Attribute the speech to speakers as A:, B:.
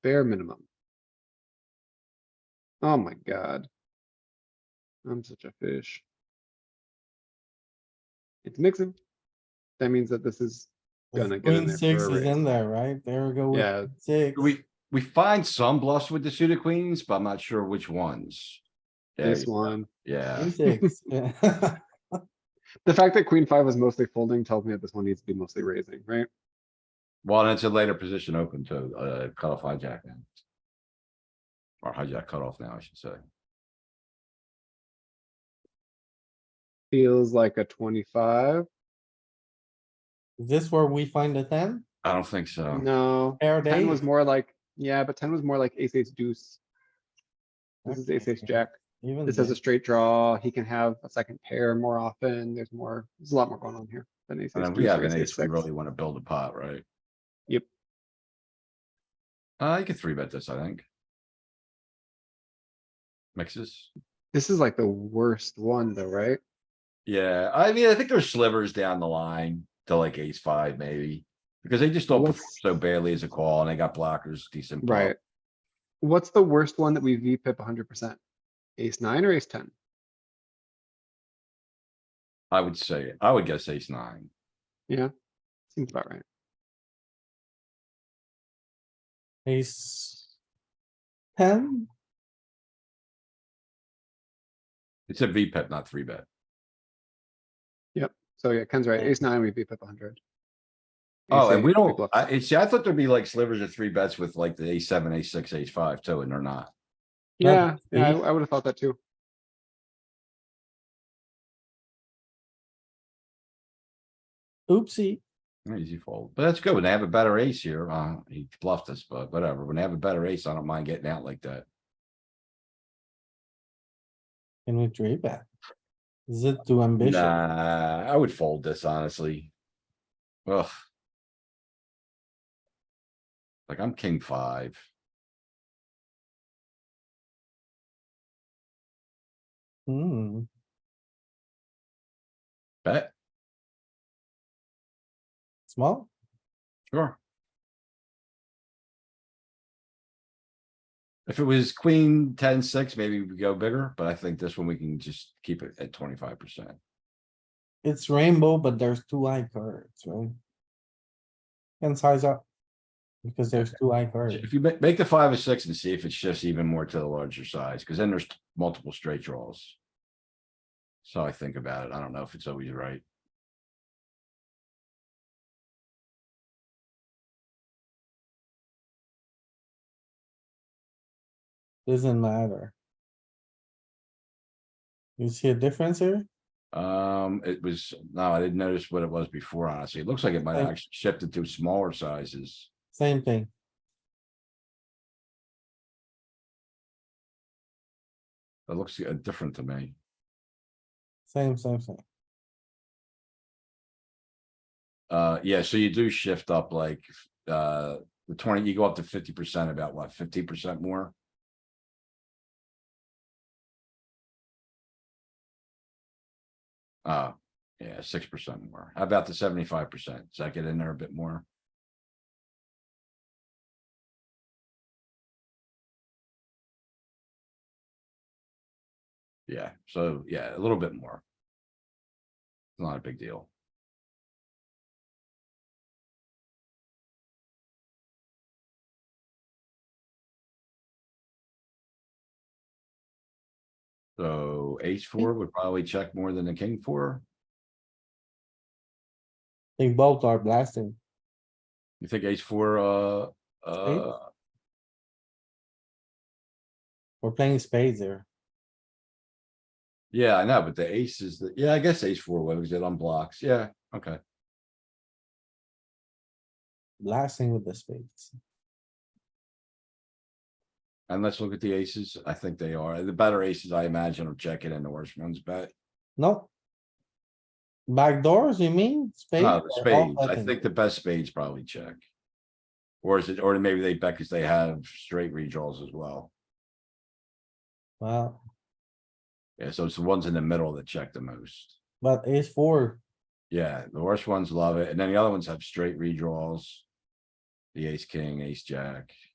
A: bare minimum. Oh my god. I'm such a fish. It's mixing. That means that this is, Gonna get in
B: Queen
A: there
B: six
A: for a
B: is
A: raise.
B: in there, right? There we go.
C: Oh,
B: with
A: yeah,
B: Six.
C: We, we find some bluffs with the suited queens, but I'm not sure which ones. There
A: this
C: you go.
A: one.
C: Yeah,
B: Queen six, yeah.
A: The fact that queen five was mostly folding tells me that this one needs to be mostly raising, right?
C: well, and it's a later position open to, uh, cutoff hijack now. Or hijack cutoff now, I should say.
A: Feels like a twenty-five.
B: Is this where we find the ten?
C: I don't think so.
A: No,
B: Pair
A: ten was
B: eight?
A: more like, yeah, but ten was more like ace, ace deuce. This is ace,
B: Okay,
A: ace jack.
B: Even
A: This has a
B: then.
A: straight draw. He can have a second pair more often. There's more, there's a lot more going on here than ace.
C: And
A: ace
C: then we
A: deuce or
C: have an
A: ace,
C: ace, we
A: six.
C: really wanna build a pot, right?
A: Yep.
C: Uh, you could three bet this, I think. Mixes.
A: This is like the worst one though, right?
C: Yeah, I mean, I think there's slivers down the line to like ace five maybe. Because they just don't
A: What's-
C: perform so badly as a call and they got blockers decent. block.
A: Right. What's the worst one that we V pip hundred percent? Ace nine or ace ten?
C: I would say, I would guess ace nine.
A: Seems about right.
B: Ace. Ten?
C: It's a V pip, not three bet.
A: So yeah, Ken's right.
B: Yeah.
A: Ace nine, we V pip hundred.
C: Oh, and we don't, I, it- see, I thought there'd be like slivers of three bets with like the ace seven, ace six, ace five too, and they're not.
B: No,
A: Yeah,
B: but
A: yeah, I,
B: he-
A: I would have thought that too.
B: Oopsie.
C: Easy fold, but that's good. When they have a better ace here, uh, he bluffed us, but whatever. When they have a better ace, I don't mind getting out like that.
B: Can we three bet? Is it too ambitious?
C: Nah, I would fold this honestly. Ugh. Like I'm king five.
B: Hmm,
C: Bet,
B: small?
C: sure. If it was queen ten six, maybe we go bigger, but I think this one we can just keep it at twenty five percent.
B: It's rainbow, but there's two eye cards, right? And size up. Because there's two eye cards.
C: If you ma- make the five or six and see if it shifts even more to the larger size, because then there's multiple straight draws. So I think about it. I don't know if it's always right.
B: Doesn't matter. You see a difference here?
C: Um, it was, no, I didn't notice what it was before, honestly. It looks like it might have
B: Uh,
C: actually shifted to smaller sizes.
B: Same thing.
C: It looks uh, different to me.
B: Same, same, same.
C: Uh, yeah, so you do shift up like, uh, the twenty, you go up to fifty percent, about what, fifty percent more? Uh, yeah, six percent more. How about the seventy-five percent? Does that get in there a bit more? Yeah, so yeah, a little bit more. Not a big deal. So ace four would probably check more than the king four.
B: They both are blasting.
C: You think ace four, uh, uh,
B: We're playing spades here.
C: yeah, I know, but the ace is the, yeah, I guess ace four would, because it unblocks. Yeah, okay.
B: Blasting with the spades.
C: And let's look at the aces. I think they are. The better aces, I imagine, are checking and the worst ones bet.
B: No. Backdoors, you mean? Spades?
C: No, the
B: or all
C: spades. I
B: button?
C: think the best spades probably check. Or is it, or maybe they bet because they have straight redraws as well.
B: Wow,
C: Yeah, so it's the ones in the middle that check the most.
B: but ace four,
C: Yeah, the worst ones love it, and then the other ones have straight redraws. The ace, king, ace, jack.